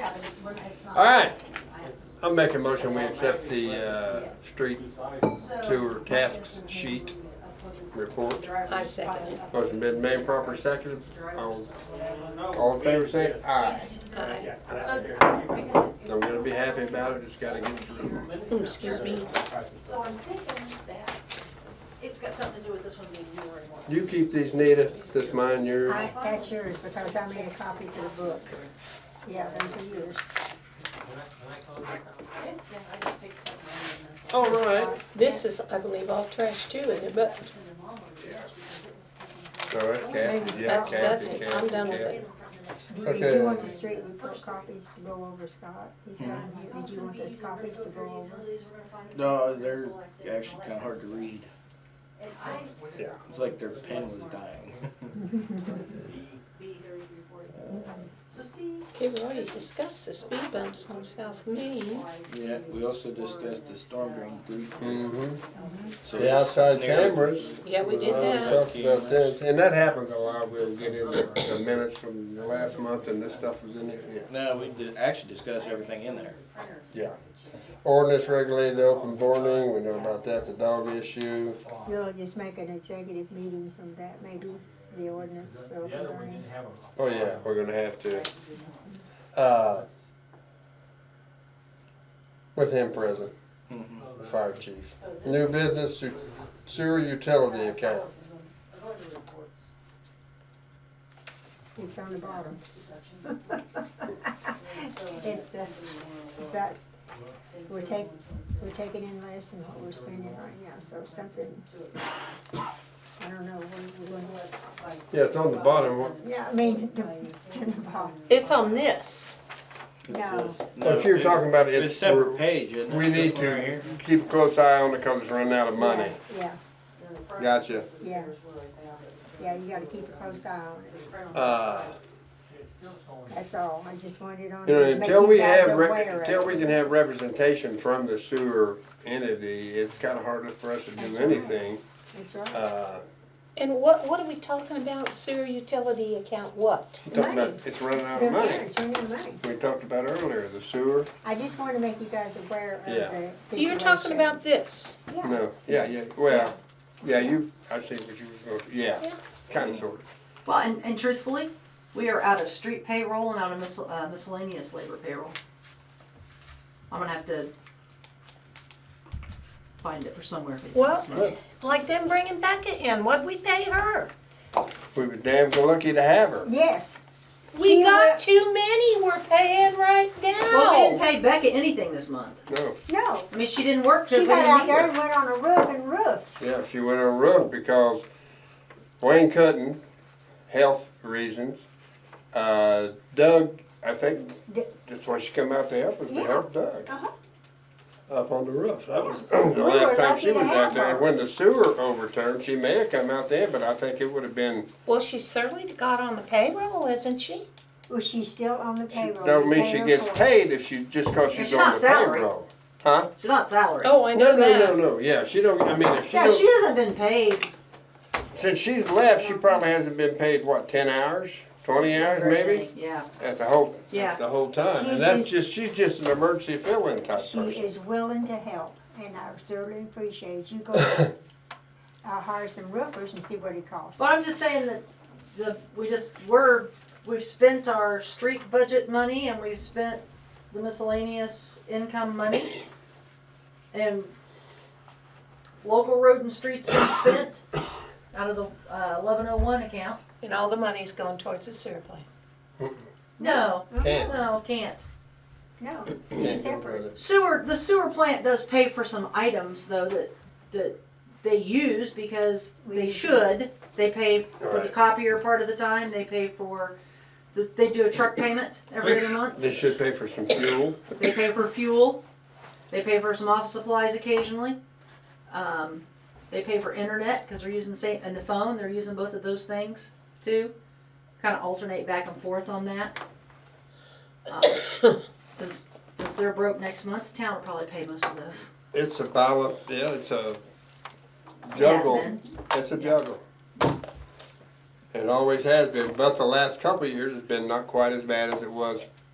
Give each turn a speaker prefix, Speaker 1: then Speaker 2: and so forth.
Speaker 1: It's not-
Speaker 2: All right,
Speaker 1: I-
Speaker 2: I'm making a motion, we accept the, uh, street tour task sheet report.
Speaker 3: I second it.
Speaker 2: Motion been made, proper seconded. All, all in favor, say aye.
Speaker 3: Aye.
Speaker 2: I'm gonna be happy about it, just gotta get through.
Speaker 3: Mm, Excuse me.
Speaker 1: So I'm thinking that it's got something to do with this one being more and more.
Speaker 2: You keep these, Nita, this mine, yours.
Speaker 4: I, that's yours, because I made a copy for the book. Yeah, those are yours.
Speaker 1: Okay, Yeah, I just picked something. and that's all.
Speaker 2: Oh,
Speaker 3: All right, this is, I believe, all trash too, isn't it? But
Speaker 1: Send them all over, yes, because it was taken
Speaker 2: So that's Kathy, yeah,
Speaker 3: That's- that's
Speaker 2: Kathy,
Speaker 3: it.
Speaker 2: Kathy,
Speaker 3: I'm done with
Speaker 2: Kathy.
Speaker 3: it.
Speaker 4: Did did
Speaker 2: Okay.
Speaker 4: you want the street report copies to go over, Scott? He's got them here. Did you want those copies to go over?
Speaker 5: No, they're actually kind of hard to read.
Speaker 1: And I
Speaker 5: It's like their pen was dying.
Speaker 1: be there to report. So see,
Speaker 3: okay, we already discussed the speed bumps on South Main.
Speaker 1: why
Speaker 5: Yeah, we also discussed the storm drain briefly.
Speaker 2: Mm-hmm.
Speaker 5: So
Speaker 2: The
Speaker 5: it's
Speaker 2: outside
Speaker 5: narrow.
Speaker 2: cameras.
Speaker 3: Yeah, we did
Speaker 2: Uh,
Speaker 3: that.
Speaker 2: Talked about that, and that happens a lot, we'll get in the the minutes from the last month and this stuff was in there, yeah.
Speaker 5: No, we did actually discussed everything in there.
Speaker 2: Yeah. Ordinance regulated open boarding, we know about that, the dog issue.
Speaker 4: You'll just make an executive meeting from that, maybe, the ordinance for open burning.
Speaker 2: Oh, yeah, we're gonna have to. Uh, With him present,
Speaker 5: Mm-hmm.
Speaker 2: the fire chief. New business su- sewer utility account.
Speaker 4: It's on the bottom. It's, uh, it's about, we're taking, we're taking in less than what we're spending right now, so something, I don't know, we, we,
Speaker 2: Yeah, it's on the bottom, What-
Speaker 4: yeah, I mean, the- it's in the bottom.
Speaker 3: It's on this.
Speaker 5: It
Speaker 4: No.
Speaker 5: says-
Speaker 2: No, if Oh, you're
Speaker 5: it-
Speaker 2: talking about it,
Speaker 5: It's
Speaker 2: it's-
Speaker 5: a separate
Speaker 2: we're-
Speaker 5: page, isn't it?
Speaker 2: we need
Speaker 5: This one right
Speaker 2: to
Speaker 5: here?
Speaker 2: keep a close eye on it because it's running out of money.
Speaker 4: Yeah,
Speaker 2: Gotcha.
Speaker 4: yeah, yeah, you gotta keep a close eye on it.
Speaker 2: Uh,
Speaker 4: That's all, I just wanted on.
Speaker 2: You know,
Speaker 4: to make
Speaker 2: until
Speaker 4: you
Speaker 2: we
Speaker 4: guys
Speaker 2: have, re-
Speaker 4: aware of
Speaker 2: until
Speaker 4: it.
Speaker 2: we can have representation from the sewer entity, it's kinda hard for us to do
Speaker 4: That's right.
Speaker 2: anything.
Speaker 4: That's right.
Speaker 2: Uh,
Speaker 3: And what, what are we talking about? Sewer utility account what?
Speaker 2: I'm talking about,
Speaker 4: Money.
Speaker 2: it's running out
Speaker 4: They're
Speaker 2: of
Speaker 4: there,
Speaker 2: money.
Speaker 4: it's in your money.
Speaker 2: We talked about earlier, the sewer,
Speaker 4: I just wanna make you guys aware of
Speaker 2: Yeah.
Speaker 4: the situation.
Speaker 3: You're talking about this.
Speaker 4: Yeah.
Speaker 2: no, yeah, yeah, well, yeah, you, I see what you was going, yeah,
Speaker 3: Yeah.
Speaker 2: kinda sort
Speaker 1: Well, and, and truthfully, we are out of street payroll and out of miscel- uh, miscellaneous labor payroll. I'm gonna have to find it for somewhere.
Speaker 3: Well, like them bringing Becca in, what'd we pay her?
Speaker 2: of. We were damn lucky to have her.
Speaker 4: Yes,
Speaker 3: We
Speaker 4: She
Speaker 3: got
Speaker 4: wa-
Speaker 3: too many we're paying right
Speaker 1: Well, we didn't
Speaker 3: now.
Speaker 1: pay Becca anything this month.
Speaker 2: No,
Speaker 4: no,
Speaker 1: I mean, she didn't work till
Speaker 4: she
Speaker 1: we
Speaker 4: got
Speaker 1: didn't
Speaker 4: out
Speaker 1: need
Speaker 4: there
Speaker 1: her.
Speaker 4: and went on a roof and roofed.
Speaker 2: yeah, she went on roof because Wayne Cutting, health reasons, uh, Doug, I think,
Speaker 4: D-
Speaker 2: that's why she come out to help us, to
Speaker 4: Yeah.
Speaker 2: help Doug.
Speaker 4: Uh-huh.
Speaker 2: Up on the roof, that was the
Speaker 4: were
Speaker 2: last time
Speaker 4: lucky
Speaker 2: she
Speaker 4: to
Speaker 2: was
Speaker 4: have
Speaker 2: out there, and
Speaker 4: her.
Speaker 2: when the sewer overturned, she may have come out there, but I think it would have been,
Speaker 3: Well, she certainly got on the payroll, isn't she?
Speaker 4: Well, she's still on the
Speaker 2: she,
Speaker 4: payroll.
Speaker 2: don't
Speaker 4: We
Speaker 2: mean
Speaker 4: pay
Speaker 2: she
Speaker 4: her
Speaker 2: gets
Speaker 4: for it.
Speaker 2: paid if she, just cause
Speaker 1: And
Speaker 2: she's
Speaker 1: she's
Speaker 2: on
Speaker 1: not
Speaker 2: the
Speaker 1: salaried.
Speaker 2: payroll. Huh?
Speaker 1: She's not salary.
Speaker 3: Oh, I
Speaker 2: No, no,
Speaker 3: know
Speaker 2: no,
Speaker 3: that.
Speaker 2: no, yeah, she don't, I mean, if she
Speaker 1: Yeah, she
Speaker 2: don't,
Speaker 1: hasn't been paid.
Speaker 2: since she's left, she probably hasn't been paid, what, ten hours? Twenty hours
Speaker 1: for
Speaker 2: maybe,
Speaker 1: anything. Yeah.
Speaker 2: at the whole,
Speaker 1: Yeah.
Speaker 2: at the whole time,
Speaker 4: She's
Speaker 2: and that's just,
Speaker 4: just-
Speaker 2: she's just an emergency fill-in type
Speaker 4: She
Speaker 2: person.
Speaker 4: is willing to help, and I certainly appreciate you go, I'll hire some roofers and see what it costs.
Speaker 1: Well, I'm just saying that the, we just, we're, we've spent our street budget money and we've spent the miscellaneous income money. And local road and streets been spent out of the eleven oh one account.
Speaker 3: And all the money's going towards the sewer plant.
Speaker 1: No,
Speaker 2: Can't.
Speaker 1: no, can't.
Speaker 4: No, they're separate.
Speaker 1: Sewer, the sewer plant does pay for some items though that, that they use because they should. They pay for the
Speaker 2: Right.
Speaker 1: copier part of the time, they pay for, the- they do a truck payment every other month.
Speaker 2: They should pay for some fuel,
Speaker 1: They pay for fuel, they pay for some office supplies occasionally. Um, they pay for internet, cause they're using the same, and the phone, they're using both of those things too. Kinda alternate back and forth on that. Um, Since, since they're broke next month, the town will probably pay most of those.
Speaker 2: it's a ballot, yeah, it's a juggle.
Speaker 1: Jasmine.
Speaker 2: It's a juggle. It always has been, but the last couple of years has been not quite as bad as it was